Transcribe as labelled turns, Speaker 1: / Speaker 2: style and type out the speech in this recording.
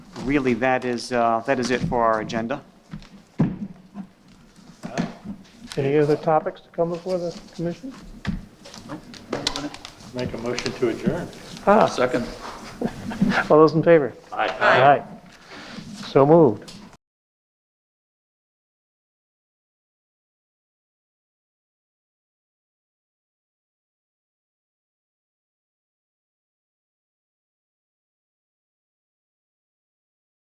Speaker 1: really, that is, uh, that is it for our agenda.
Speaker 2: Any other topics to come before the commission?
Speaker 3: Make a motion to adjourn.
Speaker 2: Ah,
Speaker 4: Second.
Speaker 2: all those in favor? Aye. So moved.